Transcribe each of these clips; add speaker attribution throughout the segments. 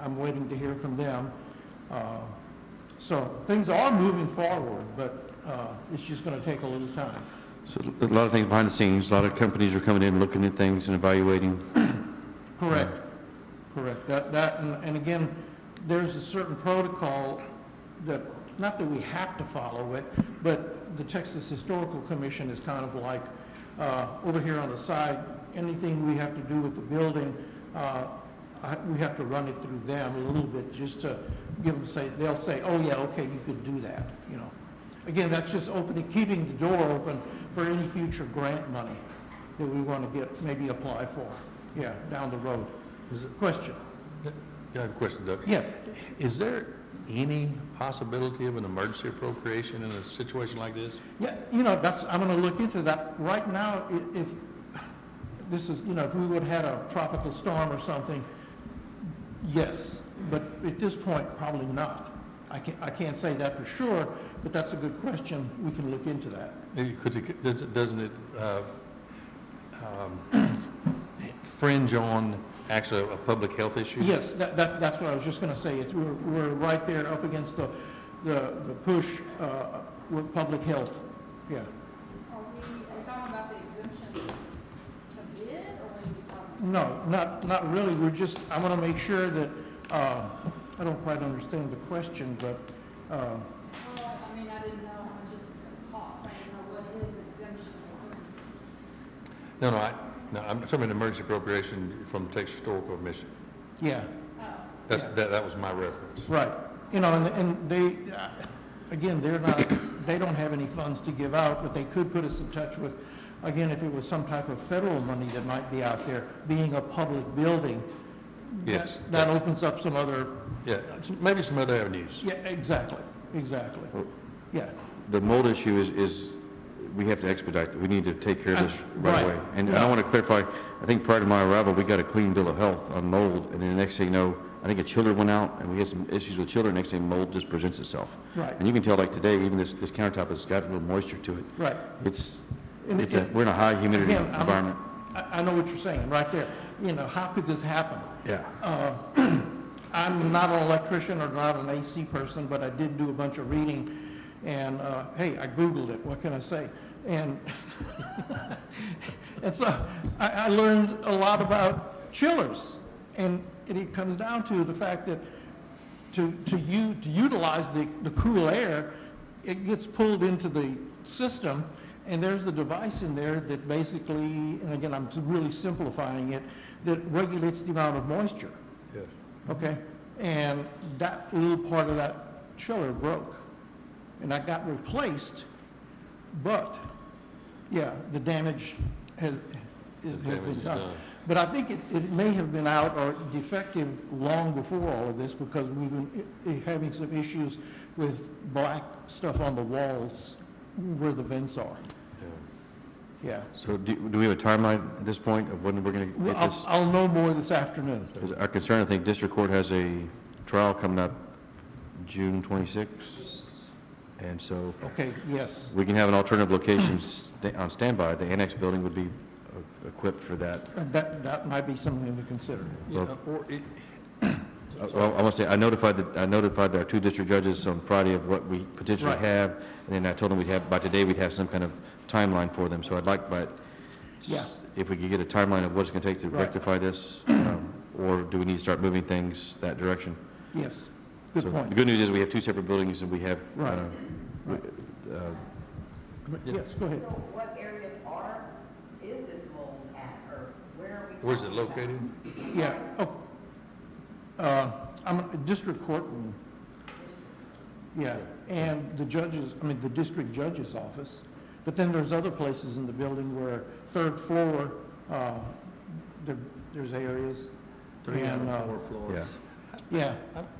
Speaker 1: I'm waiting to hear from them. Uh, So things are moving forward, but uh, it's just going to take a little time.
Speaker 2: So a lot of things behind the scenes, a lot of companies are coming in, looking at things and evaluating.
Speaker 1: Correct, correct. That, that, and and again, there's a certain protocol that, not that we have to follow it, but the Texas Historical Commission is kind of like, uh, over here on the side, anything we have to do with the building, uh, I- we have to run it through them a little bit, just to give them, say, they'll say, oh, yeah, okay, you could do that, you know. Again, that's just opening, keeping the door open for any future grant money that we want to get, maybe apply for, yeah, down the road.
Speaker 3: Is it,
Speaker 1: Question?
Speaker 3: I have a question, Doug.
Speaker 1: Yeah,
Speaker 3: Is there any possibility of an emergency appropriation in a situation like this?
Speaker 1: yeah, you know, that's, I'm going to look into that. Right now, i- if, this is, you know, if we would have had a tropical storm or something, yes, but at this point, probably not. I can't, I can't say that for sure, but that's a good question. We can look into that.
Speaker 3: Maybe Could it, does it- doesn't it, uh, um, fringe on actually a public health issue?
Speaker 1: Yes, that, that, that's what I was just gonna say, it's, we're, we're right there up against the, the, the push, uh, with public health, yeah.
Speaker 4: Are we, are we talking about the exemption to bid, or are we talking?
Speaker 1: No, not, not really, we're just, I wanna make sure that, uh, I don't quite understand the question, but, uh,
Speaker 4: Well, I mean, I didn't know how much this is gonna cost, I didn't know what his exemption was.
Speaker 3: No, no, I, no, I'm talking about emergency appropriation from the Texas Historical Commission.
Speaker 1: yeah.
Speaker 4: Oh,
Speaker 3: That's,
Speaker 1: Yeah.
Speaker 3: that, that was my reference.
Speaker 1: Right, you know, and, and they, uh, again, they're not, they don't have any funds to give out, but they could put us in touch with, again, if it was some type of federal money that might be out there, being a public building. that-
Speaker 3: Yes,
Speaker 1: That
Speaker 3: that's-
Speaker 1: opens up some other,
Speaker 3: Yeah, maybe some other avenues.
Speaker 1: yeah, exactly, exactly,
Speaker 2: Oh.
Speaker 1: yeah.
Speaker 2: The mold issue is, is, we have to expedite, that. we need to take care of this right
Speaker 1: Uh, Right.
Speaker 2: away. And and I want to clarify, I think prior to my arrival, we got a clean bill of health on mold, and then the next thing you know, I think a chiller went out, and we had some issues with children, next thing mold just presents itself.
Speaker 1: Right.
Speaker 2: And you can tell like today, even this, this countertop has got a little moisture to it.
Speaker 1: Right.
Speaker 2: It's,
Speaker 1: And
Speaker 2: it's a,
Speaker 1: it-
Speaker 2: we're in a high humidity
Speaker 1: Again, I'm-
Speaker 2: environment.
Speaker 1: I, I know what you're saying, right there, you know, how could this happen?
Speaker 2: Yeah.
Speaker 1: Uh, I'm not an electrician or not an AC person, but I did do a bunch of reading, and, uh, hey, I Googled it, what can I say? And, and so, I, I learned a lot about chillers, and it- it comes down to the fact that to, to u, to utilize the, the cool air, it gets pulled into the system, and there's the device in there that basically, and again, I'm really simplifying it, that regulates the amount of moisture,
Speaker 3: Yes.
Speaker 1: okay? And that little part of that chiller broke, and that got replaced, but, yeah, the damage has, has has
Speaker 3: The damage
Speaker 1: been
Speaker 3: is
Speaker 1: done.
Speaker 3: done.
Speaker 1: But I think it, it may have been out or defective long before all of this because we've been i- i- having some issues with black stuff on the walls where the vents are.
Speaker 3: Yeah.
Speaker 1: Yeah.
Speaker 2: So do, do we have a timeline at this point of when we're going to
Speaker 1: Well,
Speaker 2: get
Speaker 1: I'll,
Speaker 2: this?
Speaker 1: I'll know more this afternoon.
Speaker 2: 'Cause Our concern, I think, district court has a trial coming up June 26th, and so
Speaker 1: Okay, yes.
Speaker 2: we can have an alternative location sta- on standby. The annex building would be uh, equipped for that.
Speaker 1: And That, that might be something to consider.
Speaker 3: Yeah, or it,
Speaker 2: Uh, Well, I want to say, I notified, the- I notified our two district judges on Friday of what we potentially
Speaker 1: Right.
Speaker 2: have, and then I told them we'd have, by today, we'd have some kind of timeline for them, so I'd like, but
Speaker 1: Yeah.
Speaker 2: if we could get a timeline of what it's going to take to
Speaker 1: Right.
Speaker 2: rectify this, um, or do we need to start moving things that direction?
Speaker 1: Yes. Good
Speaker 2: So The
Speaker 1: point.
Speaker 2: good news is we have two separate buildings, and we have,
Speaker 1: Right.
Speaker 2: uh,
Speaker 1: Right.
Speaker 2: uh,
Speaker 1: Yes, go ahead.
Speaker 5: So what areas are, is this mold at, or where are we?
Speaker 3: where's it
Speaker 5: talking about?
Speaker 3: located?
Speaker 1: Yeah, oh, uh, I'm a district courtroom. Yeah, and the judges, I mean, the district judge's office. But then there's other places in the building where third floor, uh, there, there's areas. and, uh,
Speaker 2: yeah.
Speaker 1: Yeah.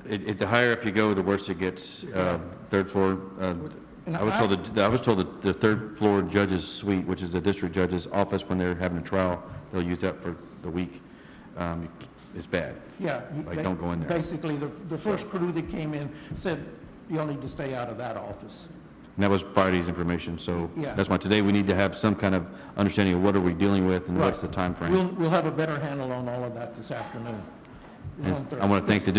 Speaker 2: It, it, the higher up you go, the worse it gets, uh, third floor, uh,
Speaker 1: And
Speaker 2: I was told, that- I was told that the third floor judge's suite, which is the district judge's office, when they're having a trial, they'll use that for the week. Um, It's bad.
Speaker 1: Yeah. you-
Speaker 2: Like, don't go in there.
Speaker 1: Basically, the, the first crew that came in said, y'all need to stay out of that office.
Speaker 2: And that was Friday's information, so
Speaker 1: Yeah.
Speaker 2: that's why today we need to have some kind of understanding of what are we dealing with and what's the
Speaker 1: Right.
Speaker 2: timeframe.
Speaker 1: We'll, we'll have a better handle on all of that this afternoon.
Speaker 2: And I want to thank the